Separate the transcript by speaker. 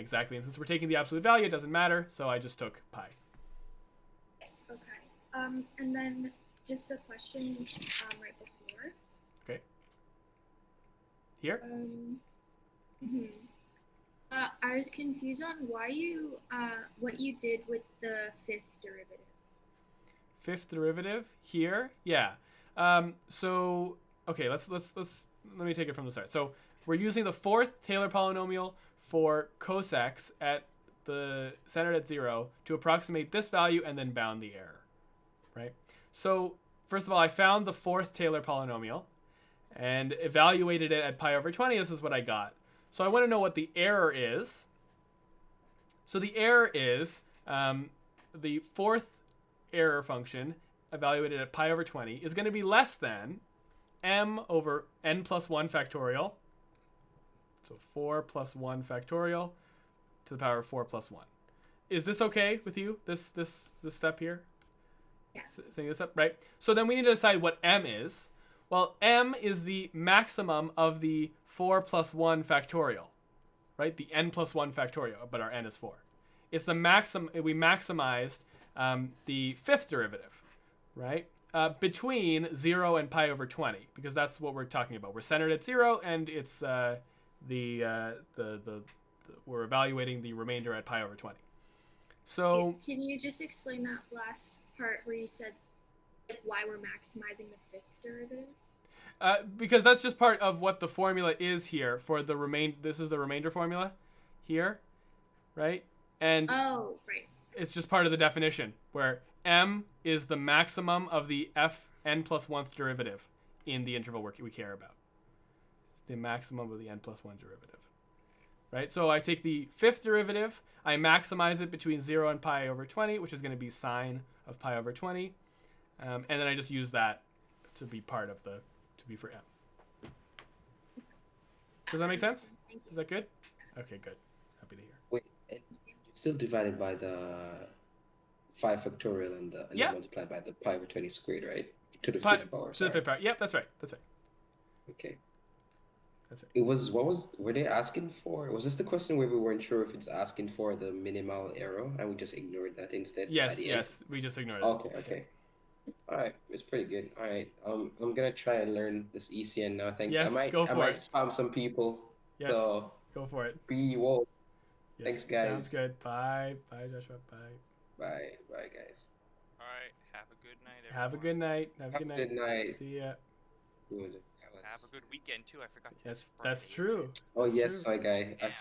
Speaker 1: Exactly. And since we're taking the absolute value, it doesn't matter. So I just took pi.
Speaker 2: Okay. Um, and then just the question um, right before.
Speaker 1: Here?
Speaker 2: Um, hmm uh, I was confused on why you uh, what you did with the fifth derivative.
Speaker 1: Fifth derivative here. Yeah. Um, so okay, let's let's let's let me take it from the start. So we're using the fourth Taylor polynomial for cos x at the centered at zero to approximate this value and then bound the error. Right? So first of all, I found the fourth Taylor polynomial and evaluated it at pi over 20. This is what I got. So I want to know what the error is. So the error is um, the fourth error function evaluated at pi over 20 is going to be less than m over n plus 1 factorial. So 4 plus 1 factorial to the power of 4 plus 1. Is this okay with you? This this this step here?
Speaker 2: Yeah.
Speaker 1: S- setting this up, right? So then we need to decide what m is. Well, m is the maximum of the 4 plus 1 factorial, right? The n plus 1 factorial, but our n is 4. It's the maxim, we maximized um, the fifth derivative, right? Uh, between 0 and pi over 20, because that's what we're talking about. We're centered at 0, and it's uh, the, uh, the, the, the, we're evaluating the remainder at pi over 20. So.
Speaker 2: Can- Can you just explain that last part where you said like why we're maximizing the fifth derivative?
Speaker 1: Uh, because that's just part of what the formula is here for the remain. This is the remainder formula, here, right? And
Speaker 2: Oh, right.
Speaker 1: it's just part of the definition where m is the maximum of the f n plus one derivative in the interval we we care about. It's the maximum of the n plus one derivative, right? So I take the fifth derivative, I maximize it between zero and pi over twenty, which is going to be sine of pi over twenty, um, and then I just use that to be part of the to be for m. Does that make sense?
Speaker 2: Thank
Speaker 1: Is
Speaker 2: you.
Speaker 1: that good? Okay, good. Happy to hear.
Speaker 3: Wait, and you still divided by the five factorial and the and
Speaker 1: Yeah.
Speaker 3: then multiplied by the pi over twenty squared, right? To the
Speaker 1: Pi-
Speaker 3: fifth power.
Speaker 1: To the
Speaker 3: sorry.
Speaker 1: fifth power. Yep, that's right. That's right.
Speaker 3: Okay.
Speaker 1: That's right.
Speaker 3: It was what was were they asking for? Was this the question where we weren't sure if it's asking for the minimal error and we just ignored that instead? at
Speaker 1: Yes,
Speaker 3: the end?
Speaker 1: yes. We just ignored it.
Speaker 3: Okay, okay. All right, it's pretty good. All right, um, I'm gonna try and learn this ECN now. Thanks.
Speaker 1: Yes,
Speaker 3: I might,
Speaker 1: go
Speaker 3: I
Speaker 1: for
Speaker 3: might
Speaker 1: it.
Speaker 3: spam some people.
Speaker 1: Yes.
Speaker 3: So
Speaker 1: Go for it.
Speaker 3: be woke.
Speaker 1: Yes,
Speaker 3: Thanks,
Speaker 1: Sounds
Speaker 3: guys.
Speaker 1: good. Bye. Bye, Joshua. Bye.
Speaker 3: Bye, bye, guys.
Speaker 4: All right. Have a good night. Everyone.
Speaker 1: Have a good night. Have a good night.
Speaker 3: Have a good night.
Speaker 1: See ya.
Speaker 3: Good. That
Speaker 4: Have
Speaker 3: was-
Speaker 4: a good weekend too. I forgot to.
Speaker 1: Yes,
Speaker 4: confirm
Speaker 1: that's
Speaker 4: these.
Speaker 1: true.
Speaker 3: Oh
Speaker 1: That's
Speaker 3: yes,
Speaker 1: true.
Speaker 3: my guy. I
Speaker 4: Yeah.